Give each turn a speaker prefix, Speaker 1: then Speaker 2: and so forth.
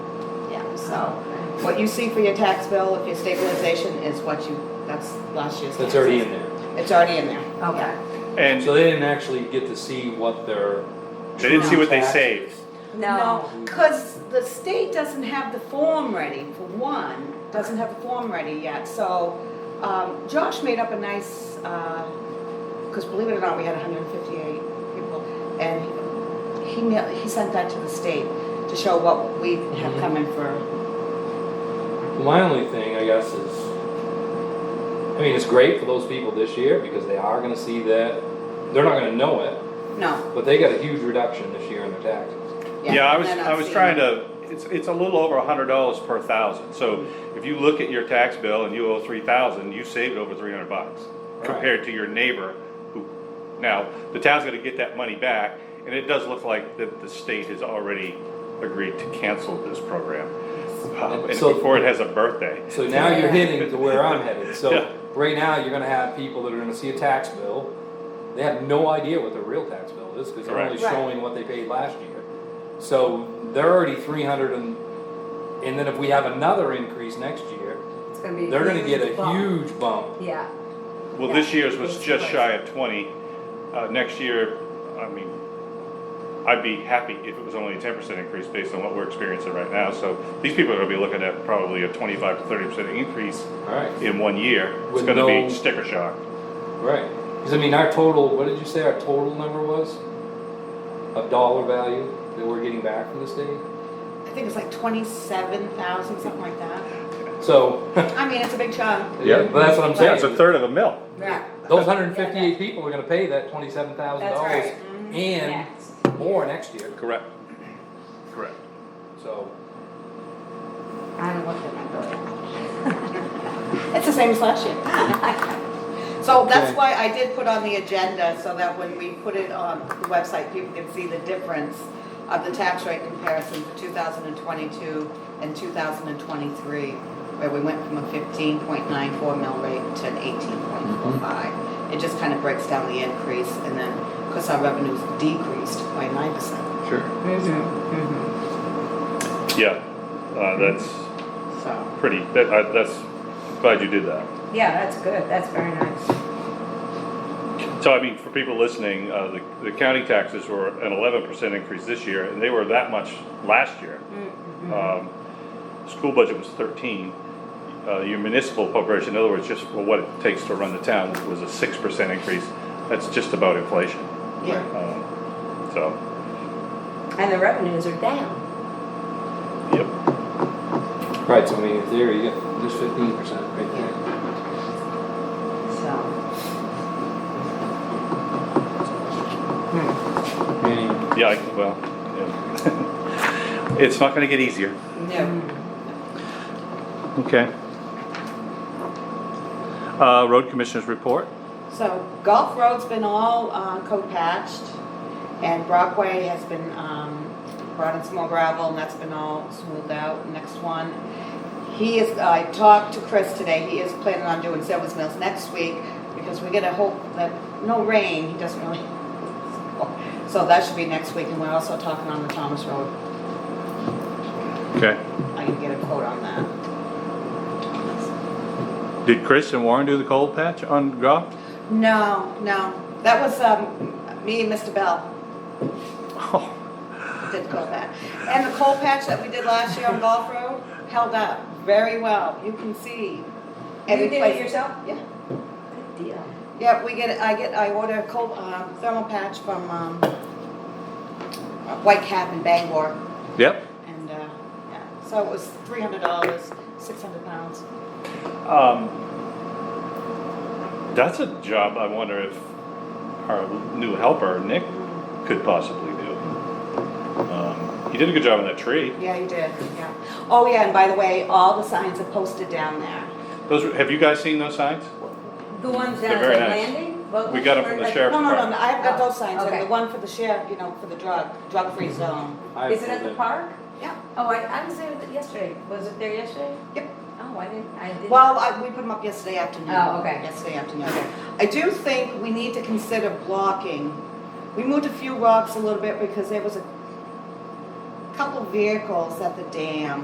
Speaker 1: So what you see for your tax bill, if your stabilization is what you, that's last year's.
Speaker 2: That's
Speaker 1: taxes.
Speaker 2: already in there.
Speaker 1: It's already in there.
Speaker 3: Okay.
Speaker 4: And
Speaker 2: So they didn't actually get to see what their.
Speaker 4: they didn't see what they
Speaker 2: true
Speaker 4: saved.
Speaker 3: No.
Speaker 1: Because the state doesn't have the form ready, for one, doesn't have the form ready yet, so, um, Josh made up a nice, uh 'cause because believe it or not, we had hundred and fifty-eight people, and he, mail- he sent that to the state to show what we
Speaker 2: Mm-hmm.
Speaker 1: have come in for.
Speaker 2: taxes. My only thing, I guess, is, I mean, it's great for those people this year because they are gonna see that, they're not gonna know it,
Speaker 1: No.
Speaker 2: but they got a huge reduction this year in their taxes.
Speaker 4: Yeah, I was,
Speaker 1: they're not
Speaker 4: I was
Speaker 1: seeing
Speaker 4: trying
Speaker 1: it.
Speaker 4: to, it's, it's a little over a hundred dollars per thousand, so if you look at your tax bill and you owe three thousand, you saved over three hundred bucks. Compared to your neighbor who, now, the town's gonna get that money back, and it does look like that the state has already agreed to cancel this program. Uh, And
Speaker 2: So-
Speaker 4: before it has a birthday.
Speaker 2: So now you're
Speaker 3: Yeah.
Speaker 2: hitting to where I'm headed,
Speaker 4: Yeah.
Speaker 2: so right now, you're gonna have people that are gonna see a tax bill, they have no idea what their real tax bill is, because they're only
Speaker 4: Correct.
Speaker 1: Right.
Speaker 2: showing what they paid last year. So they're already three hundred and, and then if we have another increase next year,
Speaker 3: It's gonna be.
Speaker 2: they're gonna get a
Speaker 3: bump.
Speaker 2: huge bump.
Speaker 3: Yeah.
Speaker 4: Well,
Speaker 3: Yeah,
Speaker 4: this year's was
Speaker 3: it's
Speaker 4: just
Speaker 3: twice.
Speaker 4: shy of twenty, uh, next year, I mean, I'd be happy if it was only a ten percent increase based on what we're experiencing right now, so these people are gonna be looking at probably a twenty-five to thirty percent increase
Speaker 2: Alright,
Speaker 4: in one year, it's
Speaker 2: With
Speaker 4: gonna
Speaker 2: no-
Speaker 4: be sticker shock.
Speaker 2: right, cause I mean, our total, what did you say our total number was? Of dollar value that we're getting back from the state?
Speaker 1: I think it's like twenty-seven thousand, something like that.
Speaker 2: So,
Speaker 1: I mean, it's a big chunk.
Speaker 2: yeah, but that's what I'm saying.
Speaker 4: third of a mill.
Speaker 1: Yeah.
Speaker 2: Those hundred and fifty-eight people are gonna pay that twenty-seven thousand
Speaker 3: That's
Speaker 2: dollars
Speaker 3: right.
Speaker 1: Mm-hmm.
Speaker 2: and more next year,
Speaker 4: Correct. Correct.
Speaker 2: so.
Speaker 3: I haven't looked at my bill.
Speaker 1: It's the same as last year. So that's
Speaker 2: Okay.
Speaker 1: why I did put on the agenda, so that when we put it on the website, people can see the difference of the tax rate comparison for 2022 and 2023, where we went from a 15.94 mill rate to an
Speaker 2: Mm-hmm.
Speaker 1: 18.45. It just kind of breaks down the increase, and then, of course, our revenues decreased by 9%,
Speaker 2: Sure.
Speaker 4: Yeah, uh, that's
Speaker 1: so.
Speaker 4: pretty, that, I, that's, glad you did that.
Speaker 3: Yeah, that's good. That's very nice.
Speaker 4: So I mean, for people listening, uh, the, the county taxes were an eleven percent increase this year, and they were that much last year.
Speaker 3: Mm-hmm.
Speaker 4: Um, School budget was thirteen. Uh, your municipal appropriation, in other words, just for what it takes to run the town, was a six percent increase. That's just about inflation.
Speaker 1: Yeah.
Speaker 4: Um, So,
Speaker 3: And the revenues are down.
Speaker 4: yep.
Speaker 2: Right, so I mean, in theory, you got, there's fifteen percent right there.
Speaker 3: So.
Speaker 2: Meaning,
Speaker 4: Yeah, I, well, yeah. it's not gonna get easier.
Speaker 1: Yeah.
Speaker 4: Okay. Uh, road commissioners report.
Speaker 1: So Gulf Road's been all uh, co-patched and Brockway has been um, brought in some more gravel and that's been all smoothed out. Next one, he is, I talked to Chris today, he is planning on doing Silver's Mills next week because we gotta hope that, no rain, he doesn't really. So that should be next week and we're also talking on the Thomas Road.
Speaker 4: Okay.
Speaker 1: I can get a quote on that.
Speaker 4: Did Chris and Warren do the cold patch on golf?
Speaker 1: No, no, that was um, me and Mr. Bell.
Speaker 4: Oh,
Speaker 1: did coal patch. And the coal patch that we did last year on Golf Road held up very well. You can see every
Speaker 3: You did it
Speaker 1: place.
Speaker 3: yourself?
Speaker 1: Yeah,
Speaker 3: Good deal.
Speaker 1: yeah, we get, I get, I order a coal, um, thermal patch from, um, White Cap in Bangor
Speaker 4: yep.
Speaker 1: and, uh, yeah, so it was three hundred dollars, six hundred pounds.
Speaker 4: Um, that's a job I wonder if our new helper, Nick, could possibly do. Um, he did a good job on that tree.
Speaker 1: Yeah, you did, yeah. Oh, yeah, and by the way, all the signs are posted down there.
Speaker 4: Those, were- have you guys seen those signs?
Speaker 3: The ones
Speaker 4: They're
Speaker 3: down at
Speaker 4: very
Speaker 3: the
Speaker 4: nice.
Speaker 3: landing? Well,
Speaker 4: We got 'em from the
Speaker 3: like-
Speaker 4: sheriff.
Speaker 1: No, no, no, I've got those signs,
Speaker 3: Oh, Okay.
Speaker 1: and the one for the sheriff, you know, for the drug, drug-free zone.
Speaker 2: I.
Speaker 3: Is it at the park?
Speaker 1: Yeah.
Speaker 3: Oh, I, I was there yesterday. Was it there yesterday?
Speaker 1: Yep.
Speaker 3: Oh, I didn't, I didn't.
Speaker 1: Well, I, we put them up yesterday afternoon.
Speaker 3: Oh, okay.
Speaker 1: Yesterday afternoon. I do think we need to consider blocking. We moved a few rocks a little bit because there was a couple vehicles at the dam